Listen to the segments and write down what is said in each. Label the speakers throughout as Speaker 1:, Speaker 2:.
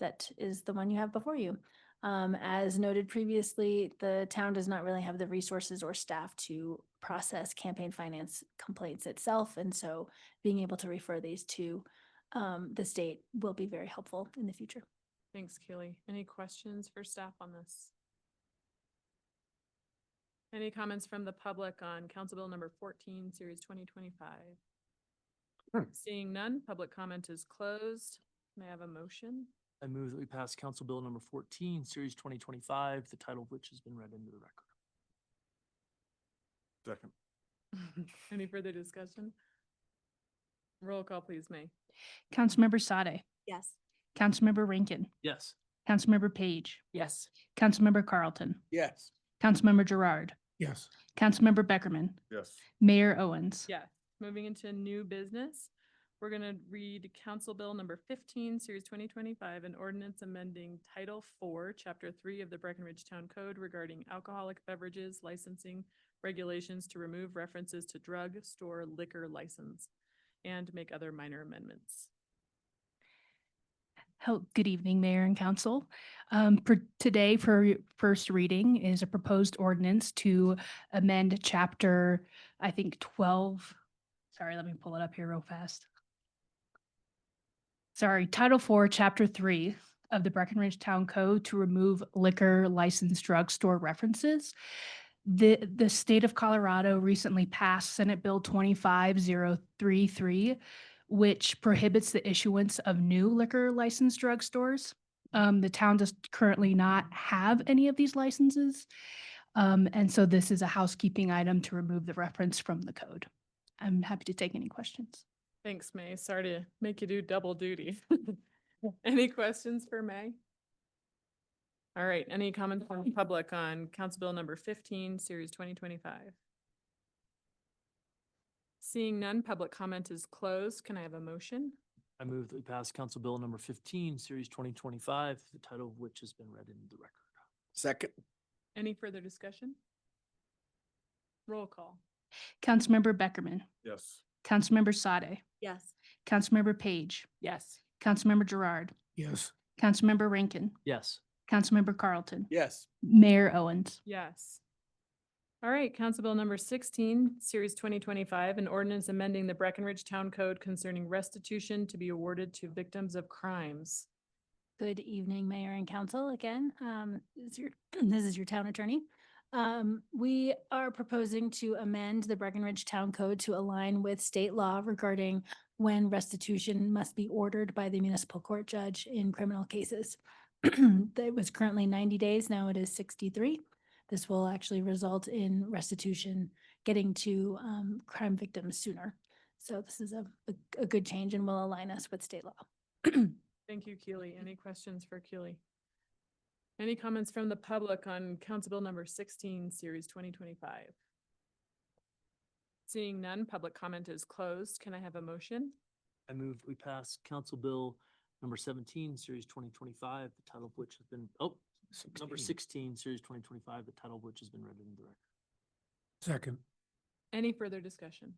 Speaker 1: that is the one you have before you. Um, as noted previously, the town does not really have the resources or staff to process campaign finance complaints itself. And so being able to refer these to, um, the state will be very helpful in the future.
Speaker 2: Thanks, Kaylee. Any questions for staff on this? Any comments from the public on Council Bill number fourteen, series twenty twenty-five?
Speaker 3: Hmm.
Speaker 2: Seeing none, public comment is closed. May I have a motion?
Speaker 3: I move that we pass Council Bill number fourteen, series twenty twenty-five, the title of which has been read into the record.
Speaker 4: Second.
Speaker 2: Any further discussion? Roll call, please, May.
Speaker 5: Councilmember Sade,
Speaker 1: Yes.
Speaker 5: Councilmember Rankin,
Speaker 3: Yes.
Speaker 5: Councilmember Page. Yes. Councilmember Carlton,
Speaker 4: Yes.
Speaker 5: Councilmember Gerard,
Speaker 3: Yes.
Speaker 5: Councilmember Beckerman,
Speaker 4: Yes.
Speaker 5: Mayor Owens.
Speaker 2: Yes. Moving into new business, we're gonna read Council Bill number fifteen, series twenty twenty-five, an ordinance amending Title Four, Chapter Three of the Breckenridge Town Code regarding alcoholic beverages licensing regulations to remove references to drug store liquor license and make other minor amendments.
Speaker 5: Hel- Good evening, Mayor and Council. Um, for today, for your first reading is a proposed ordinance to amend chapter, I think, twelve. Sorry, let me pull it up here real fast. Sorry, Title Four, Chapter Three of the Breckenridge Town Code to remove liquor licensed drugstore references. The, the state of Colorado recently passed Senate Bill twenty-five zero three three, which prohibits the issuance of new liquor licensed drugstores. Um, the town does currently not have any of these licenses. Um, and so this is a housekeeping item to remove the reference from the code. I'm happy to take any questions.
Speaker 2: Thanks, May. Sorry to make you do double duty. Any questions for May? All right, any comments from the public on Council Bill number fifteen, series twenty twenty-five? Seeing none, public comment is closed. Can I have a motion?
Speaker 3: I move that we pass Council Bill number fifteen, series twenty twenty-five, the title of which has been read into the record.
Speaker 4: Second.
Speaker 2: Any further discussion? Roll call.
Speaker 5: Councilmember Beckerman,
Speaker 4: Yes.
Speaker 5: Councilmember Sade,
Speaker 1: Yes.
Speaker 5: Councilmember Page,
Speaker 2: Yes.
Speaker 5: Councilmember Gerard,
Speaker 4: Yes.
Speaker 5: Councilmember Rankin,
Speaker 3: Yes.
Speaker 5: Councilmember Carlton,
Speaker 4: Yes.
Speaker 5: Mayor Owens.
Speaker 2: Yes. All right, Council Bill number sixteen, series twenty twenty-five, an ordinance amending the Breckenridge Town Code concerning restitution to be awarded to victims of crimes.
Speaker 1: Good evening, Mayor and Council again. Um, this is your, this is your town attorney. Um, we are proposing to amend the Breckenridge Town Code to align with state law regarding when restitution must be ordered by the municipal court judge in criminal cases. That was currently ninety days, now it is sixty-three. This will actually result in restitution getting to, um, crime victims sooner. So this is a, a- a good change and will align us with state law.
Speaker 2: Thank you, Keely. Any questions for Keely? Any comments from the public on Council Bill number sixteen, series twenty twenty-five? Seeing none, public comment is closed. Can I have a motion?
Speaker 3: I move that we pass Council Bill number seventeen, series twenty twenty-five, the title of which has been, oh, number sixteen, series twenty twenty-five, the title of which has been read into the record.
Speaker 4: Second.
Speaker 2: Any further discussion?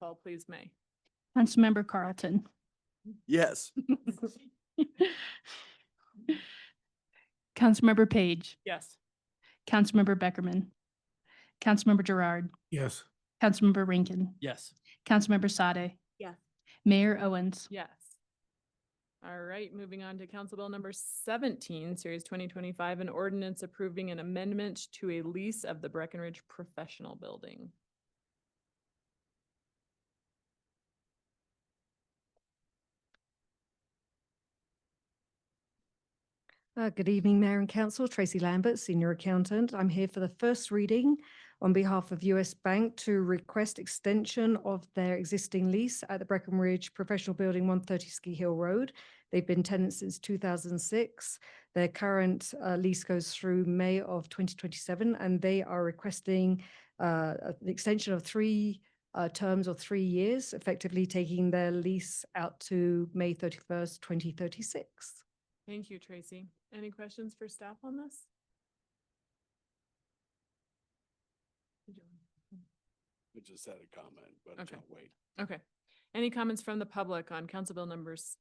Speaker 2: Call please, May.
Speaker 5: Councilmember Carlton,
Speaker 4: Yes.
Speaker 5: Councilmember Page,
Speaker 2: Yes.
Speaker 5: Councilmember Beckerman, Councilmember Gerard,
Speaker 4: Yes.
Speaker 5: Councilmember Rankin,
Speaker 3: Yes.
Speaker 5: Councilmember Sade.
Speaker 1: Yes.
Speaker 5: Mayor Owens.
Speaker 2: Yes. All right, moving on to Council Bill number seventeen, series twenty twenty-five, an ordinance approving an amendment to a lease of the Breckenridge Professional Building.
Speaker 6: Uh, Good evening, Mayor and Council. Tracy Lambert, Senior Accountant. I'm here for the first reading on behalf of US Bank to request extension of their existing lease at the Breckenridge Professional Building, 130 Ski Hill Road. They've been tenants since 2006. Their current uh, lease goes through May of 2027, and they are requesting uh, a- an extension of three uh, terms or three years, effectively taking their lease out to May 31st, 2036.
Speaker 2: Thank you, Tracy. Any questions for staff on this?
Speaker 4: I just had a comment, but
Speaker 2: Okay.
Speaker 4: I'll wait.
Speaker 2: Okay. Any comments from the public on Council Bill numbers